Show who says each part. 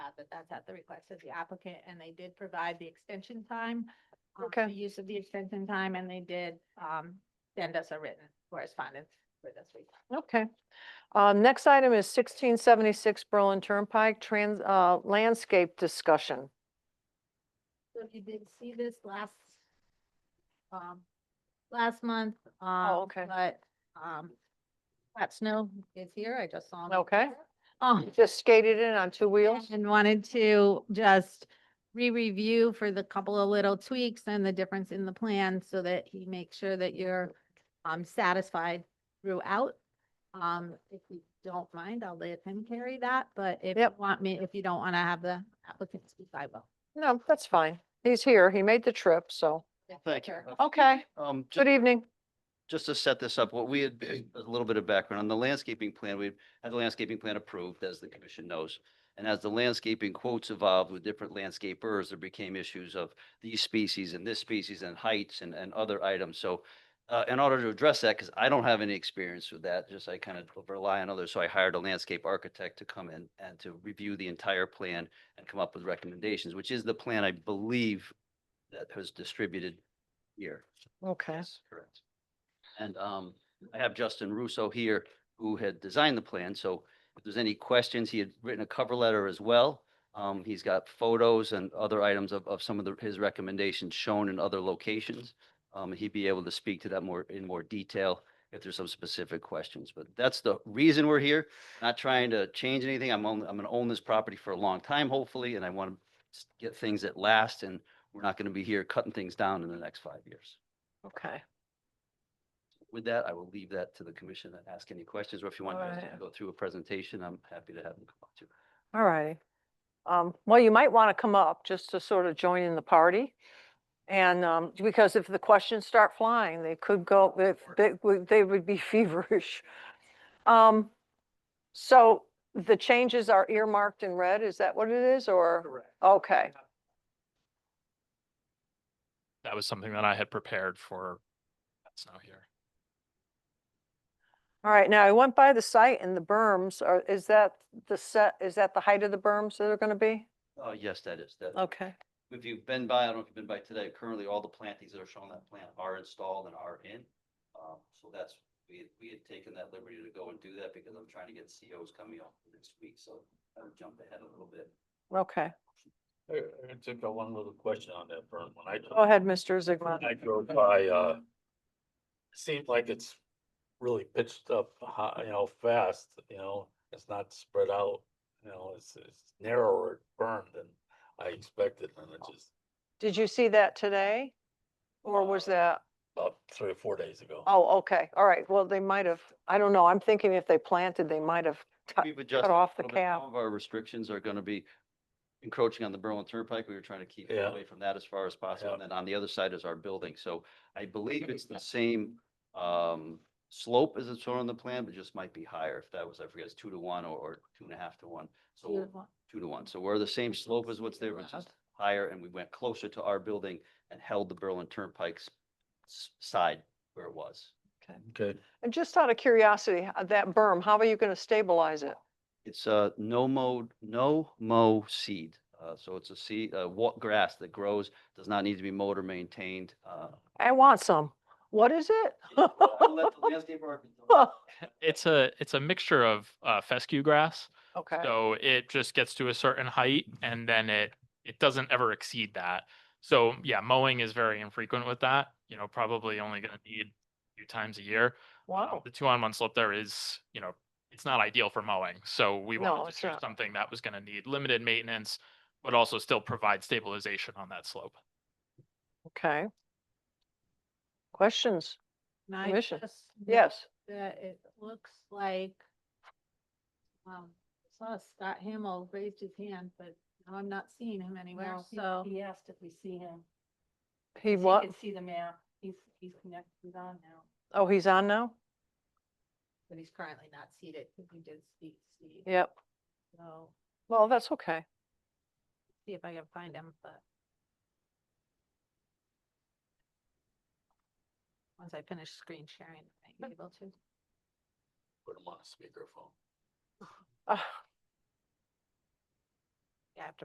Speaker 1: but that's at the request of the applicant, and they did provide the extension time. um,
Speaker 2: Okay.
Speaker 1: The use of the extension time, and they did, um, send us a written correspondence for this week.
Speaker 2: Okay. Um, next item is sixteen seventy-six Berlin Turnpike trans, uh, landscape discussion.
Speaker 1: So if you did see this last, um, last month. um,
Speaker 2: Oh, okay.
Speaker 1: But, um, Pat Snow is here. I just saw him.
Speaker 2: Okay.
Speaker 1: Um,
Speaker 2: Just skated in on two wheels?
Speaker 1: And wanted to just re-review for the couple of little tweaks and the difference in the plan so that he makes sure that you're um satisfied throughout. Um, if you don't mind, I'll let him carry that, but if you
Speaker 2: Yep.
Speaker 1: want me, if you don't want to have the applicant speak, I will.
Speaker 2: No, that's fine. He's here. He made the trip, so.
Speaker 3: Thank you.
Speaker 1: Sure.
Speaker 2: Okay,
Speaker 3: Um,
Speaker 2: good
Speaker 3: just,
Speaker 2: evening.
Speaker 3: just to set this up, what we had, a little bit of background on the landscaping plan, we had the landscaping plan approved, as the commission knows. And as the landscaping quotes evolved with different landscapers, there became issues of these species and this species and heights and, and other items. So uh, in order to address that, because I don't have any experience with that, just I kind of rely on others. So I hired a landscape architect to come in and to review the entire plan and come up with recommendations, which is the plan I believe that was distributed here.
Speaker 2: Okay,
Speaker 3: Yes, correct. And um, I have Justin Russo here, who had designed the plan, so if there's any questions, he had written a cover letter as well. Um, he's got photos and other items of, of some of the, his recommendations shown in other locations. Um, he'd be able to speak to that more, in more detail if there's some specific questions, but that's the reason we're here. Not trying to change anything, I'm only, I'm gonna own this property for a long time, hopefully, and I want to get things at last, and we're not gonna be here cutting things down in the next five years.
Speaker 2: okay.
Speaker 3: With that, I will leave that to the commission and ask any questions, or if you want us to
Speaker 2: Alright.
Speaker 3: go through a presentation, I'm happy to have them come up to.
Speaker 2: All righty. Um, well, you might want to come up just to sort of join in the party. And, um, because if the questions start flying, they could go, if, they would, they would be feverish. Um, so the changes are earmarked in red, is that what it is, or?
Speaker 4: Correct.
Speaker 2: Okay,
Speaker 5: that was something that I had prepared for. That's now here.
Speaker 2: all right, now I went by the site and the berms are, is that the set, is that the height of the berms that are gonna be?
Speaker 3: Oh, yes, that is, that,
Speaker 2: Okay,
Speaker 3: if you've been by, I don't know if you've been by today, currently all the plantings that are shown on that plan are installed and are in. Um, so that's, we, had- we had taken that liberty to go and do that because I'm trying to get COs coming up next week, so I jumped ahead a little bit.
Speaker 2: okay.
Speaker 4: I, I just got one little question on that burn. When I, dro-
Speaker 2: Go ahead, Mr.
Speaker 4: when
Speaker 2: Zigma.
Speaker 4: I drove by, uh, seemed like it's really pitched up, high, you know, fast, you know, it's not spread out. You know, it's, it's narrower burn than I expected and it just
Speaker 2: Did you see that today? Or was
Speaker 4: Uh,
Speaker 2: that?
Speaker 4: about three or four days ago.
Speaker 2: Oh, okay, all right, well, they might have, I don't know, I'm thinking if they planted, they might have cut,
Speaker 3: We've
Speaker 2: Uh, cut
Speaker 3: adjusted. a
Speaker 2: off the
Speaker 3: little bit.
Speaker 2: cap.
Speaker 3: Some of our restrictions are gonna be encroaching on the Berlin Turnpike. We were trying to keep
Speaker 4: Yeah.
Speaker 3: away from that as far as possible.
Speaker 4: Yeah.
Speaker 3: And then on the other side is our building. So I believe it's the same um slope as it's shown on the plan, but just might be higher. If that was, I forget, it's two to one or or two and a half to one. So two to one. So we're the same slope as what's there, but just higher and we went closer to our building and held the Berlin Turnpike's s- side where it was.
Speaker 4: Okay.
Speaker 2: And just out of curiosity, uh, that berm, how are you gonna stabilize it?
Speaker 3: It's a no mode, no mow seed. Uh, so it's a seed, uh, what grass that grows, does not need to be mowed or maintained. Uh,
Speaker 2: I want some, what is
Speaker 3: yeah,
Speaker 2: it?
Speaker 3: well, I'll let the landscape architect know.
Speaker 5: It's a it's a mixture of uh, fescue grass,
Speaker 2: Okay,
Speaker 5: so it just gets to a certain height and then it it doesn't ever exceed that. So yeah, mowing is very infrequent with that. You know, probably only going to need a few times a year. Um,
Speaker 2: wow,
Speaker 5: The two on one slope there is you know it's not ideal for mowing, so we
Speaker 2: No,
Speaker 5: wanted
Speaker 2: it's
Speaker 5: to do
Speaker 2: not.
Speaker 5: something that was going to need limited maintenance, but also still provide stabilization on that slope.
Speaker 2: okay. Questions?
Speaker 1: And I
Speaker 2: Commission.
Speaker 1: just note
Speaker 2: Yes,
Speaker 1: That it looks like um, I saw Scott Hamel raised his hand, but now I'm not seeing him anywhere,
Speaker 6: No, he-
Speaker 1: so.
Speaker 6: He asked if we see him.
Speaker 2: he
Speaker 6: so you
Speaker 2: what,
Speaker 6: can See the map. He's, he's connected, he's on now.
Speaker 2: oh, he's on now?
Speaker 1: But he's currently not seated because he did speak, Steve.
Speaker 2: Yep,
Speaker 1: So,
Speaker 2: well, that's okay.
Speaker 1: see if I can find him, but. Once I finish screen sharing, I am able to.
Speaker 2: Ah.
Speaker 4: Put them on a speakerphone.
Speaker 2: Uh, Yeah, I have to